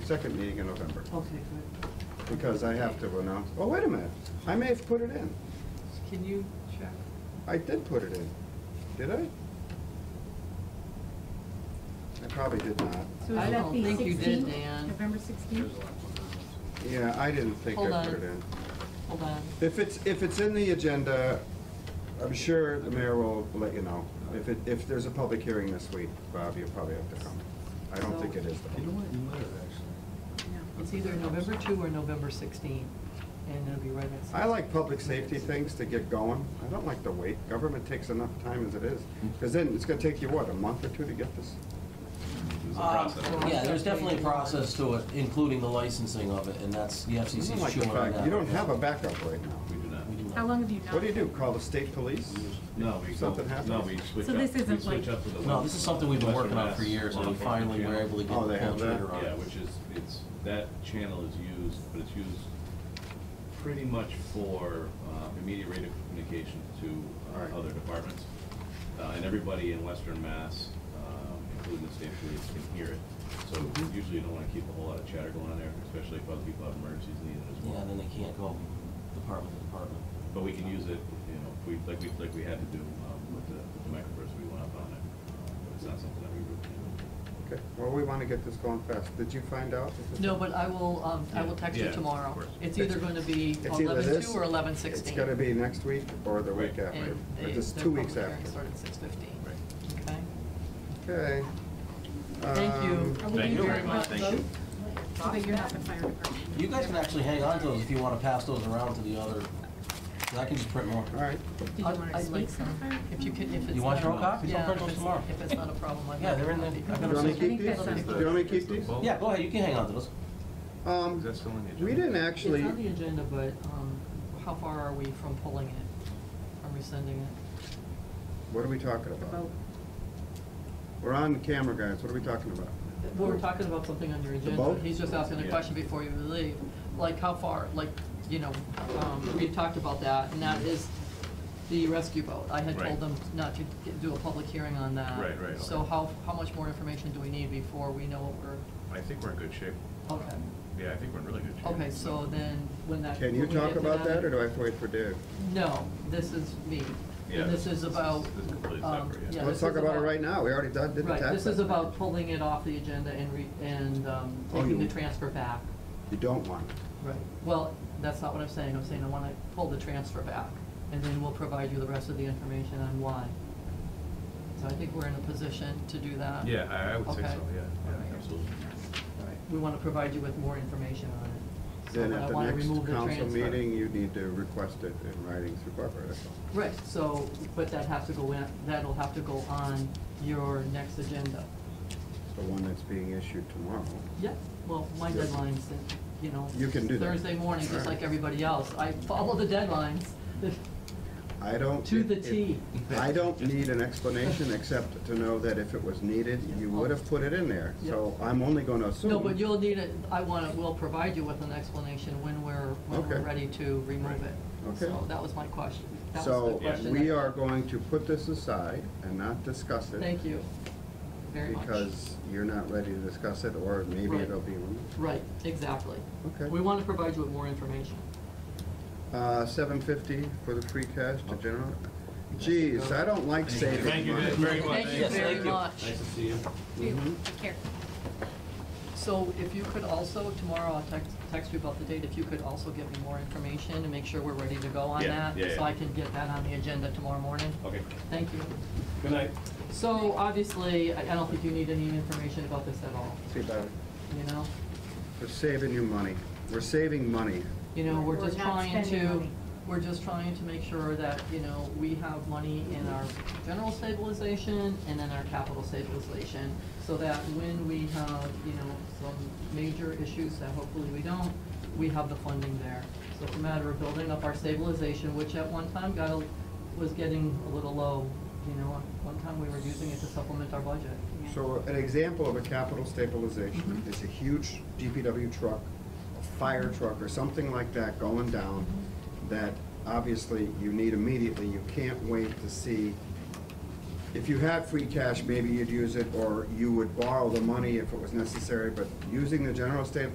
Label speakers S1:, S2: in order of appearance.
S1: second meeting in November,
S2: Okay, good.
S1: because I have to announce, oh, wait a minute, I may have put it in.
S2: Can you check?
S1: I did put it in, did I? I probably did not.
S3: So
S2: I
S3: is that
S2: don't
S3: the
S2: think you did,
S3: 16th?
S2: Dan.
S3: November sixteenth?
S1: Yeah, I didn't think
S2: Hold
S1: I
S2: on.
S1: put it in.
S2: Hold on.
S1: If it's, if it's in the agenda, I'm sure the mayor will let you know. If it, if there's a public hearing this week, Bob, you'll probably have to come. I don't think it is
S4: You know
S1: though.
S4: what, you might have actually.
S2: It's either November two or November sixteen, and it'll be right at six.
S1: I like public safety things to get going. I don't like to wait. Government takes enough time as it is.
S4: Mm-hmm.
S1: Because then it's gonna take you, what, a month or two to get this?
S5: There's a
S6: Uh,
S5: process.
S6: Yeah, there's definitely a process to it, including the licensing of it, and that's, the
S1: You don't
S6: FCC's
S1: like the
S6: chewing on
S1: fact-
S6: that.
S1: You don't have a backup right now.
S5: We do not.
S6: We do
S3: How
S6: not.
S3: long have you not?
S1: What do you do? Call the state police?
S5: No, we
S1: Something
S5: go, no,
S1: happens.
S5: we switch
S3: So
S5: up, we
S3: this isn't
S5: switch
S3: like-
S5: up to the.
S6: No, this is something we've been
S5: Western
S6: working on for
S5: Mass
S6: years, and
S5: law
S6: we
S5: enforcement
S6: finally were
S5: channel.
S6: able to get
S1: Oh,
S6: the
S1: they
S6: full
S1: have that?
S6: trigger on
S5: Yeah,
S6: it.
S5: which is, it's, that channel is used, but it's used pretty much for uh, immediate rate of communication to
S1: Right.
S5: uh, other departments. Uh, And everybody in Western Mass, um, including the state police, can hear it. So
S6: Mm-hmm.
S5: usually you don't want to keep a whole lot of chatter going on there, especially if other people have emergencies needed as
S6: Yeah, then
S5: well.
S6: they can't go department to department.
S5: But we can use it, you know, if we, like we, like we had to do um, with the with the microburst, we went up on it. Uh, but It's not something that we routinely do.
S1: Okay, well, we wanna get this going fast. Did you find out? if it's-
S2: No, but I will, um, I will text
S5: Yeah,
S2: you
S5: of
S2: tomorrow.
S5: course.
S2: It's either gonna be
S1: It's either
S2: eleven two
S1: this-
S2: or eleven sixteen.
S1: It's gonna be next week or the week
S5: Right.
S1: after,
S2: And
S1: but
S2: they-
S1: it's
S2: their
S1: two weeks
S2: public hearing
S1: after.
S2: started at six fifteen.
S5: Right.
S1: Okay.
S2: Okay? Thank you.
S1: Um,
S5: Thank you very much. Thank you.
S3: Figure out the fire department.
S6: You guys can actually hang on to those if you want to pass those around to the other, 'cause I can just print more.
S1: All right,
S3: Did you
S2: I'd-
S3: want to
S2: I'd like
S3: speak
S2: some.
S3: somewhere?
S2: If you can, if it's.
S6: You want
S2: not-
S6: your own copies? I'll
S2: Yeah, if
S6: print those
S2: it's-
S6: tomorrow.
S2: If it's not a problem, I'd.
S6: Yeah, they're in the, I
S1: do you
S6: got
S1: wanna
S6: them.
S3: think
S1: keep these?
S3: that sounds
S1: Do you wanna keep these?
S6: Yeah, go ahead, you can hang on to those.
S1: Um,
S4: That's still on the
S1: we didn't actually,
S2: It's on the agenda, but, um, how far are we from pulling it? Are we sending it?
S1: what are we talking about?
S3: About
S1: We're on camera, guys, what are we talking about?
S2: We were talking about something on your agenda.
S1: boat?
S2: He's just asking a
S5: Yeah.
S2: question before you leave. Like, how far, like, you know, um, we talked about that, and that is the rescue boat. I had told
S5: Right.
S2: them not to get- do a public hearing on that.
S5: Right, right,
S2: So
S5: okay.
S2: how, how much more information do we need before we know what we're,
S5: I think we're in good shape.
S2: okay.
S5: Yeah, I think we're in really good shape.
S2: Okay, so then, when that.
S1: Can you
S2: when we
S1: talk
S2: get to
S1: about that, or do I have to wait for Dave?
S2: No, this is me.
S5: Yeah,
S2: And this is about.
S5: this is completely
S2: um,
S5: separate, yeah.
S2: yeah,
S1: Let's
S2: this
S1: talk
S2: is
S1: about it right now, we already done, did the tax.
S2: Right, this is
S1: levy.
S2: about pulling it off the agenda and re, and, um,
S1: Oh,
S2: taking
S1: you-
S2: the transfer back.
S1: You don't want it.
S2: Right. Well, that's not what I'm saying, I'm saying I wanna pull the transfer back, and then we'll provide you the rest of the information on why. So I think we're in a position to do that.
S5: Yeah, I, I would say
S2: uh, Okay.
S5: so, yeah,
S2: Alright.
S5: yeah, absolutely.
S2: All right. We wanna provide you with more information on it. So
S1: Then
S2: but I
S1: at the
S2: wanna
S1: next
S2: remove the
S1: council
S2: transfer.
S1: meeting, you need to request it in writing through Barbara, that's all.
S2: Right, so, but that has to go in, that'll have to go on your next agenda.
S1: It's The one that's being issued tomorrow.
S2: Yeah, well, my
S1: Yeah.
S2: deadline's, in, you know.
S1: You can do that.
S2: Thursday morning, just
S1: Alright.
S2: like everybody else, I follow the deadlines
S1: I don't.
S2: to the
S1: if-
S2: T.
S1: I don't need an explanation, except to know that if it was needed, you would have put it in there. So I'm only gonna assume.
S2: No, but you'll need it, I want to, we'll provide you with an explanation when we're, when we're
S1: Okay.
S2: ready to remove it.
S1: Okay.
S2: So that was my question. That was the
S1: So
S2: question.
S1: we
S2: that-
S1: are going to put this aside and not discuss it.
S2: Thank you, very much.
S1: Because you're not ready to discuss it, or maybe
S2: Right.
S1: it'll be removed.
S2: Right, exactly.
S1: Okay.
S2: We want to provide you with more information.
S1: Uh, seven fifty for the free cash to general. Geez, I don't like saving money.
S5: Oh. Thank you very much.
S2: Thank you very much.
S6: Nice to see you.
S3: you,
S1: Mhm.
S3: take care.
S2: So if you could also, tomorrow I'll text, text you about the date, if you could also give me more information and make sure we're ready to go on
S5: Yeah,
S2: that.
S5: yeah,
S2: So
S5: yeah.
S2: I can get that on the agenda tomorrow morning.
S5: Okay,
S2: Thank you.
S5: good night.
S2: So obviously, I I don't think you need any information about this at all,
S1: See, Bobby,
S2: you know?
S1: we're saving you money. We're saving money.
S2: You know, we're
S3: We're
S2: just
S3: not
S2: trying
S3: spending
S2: to,
S3: money.
S2: we're just trying to make sure that, you know, we have money in our general stabilization and in our capital stabilization, so that when we have, you know, some major issues that hopefully we don't, we have the funding there. So it's a matter of building up our stabilization, which at one time got, a- was getting a little low, you know, at one time we were using it to supplement our budget.
S1: So an example of a capital stabilization is a huge DPW truck, a fire truck, or something like that going down that obviously you need immediately. You can't wait to see if you had free cash, maybe you'd use it, or you would borrow the money if it was necessary, but using the general stabilization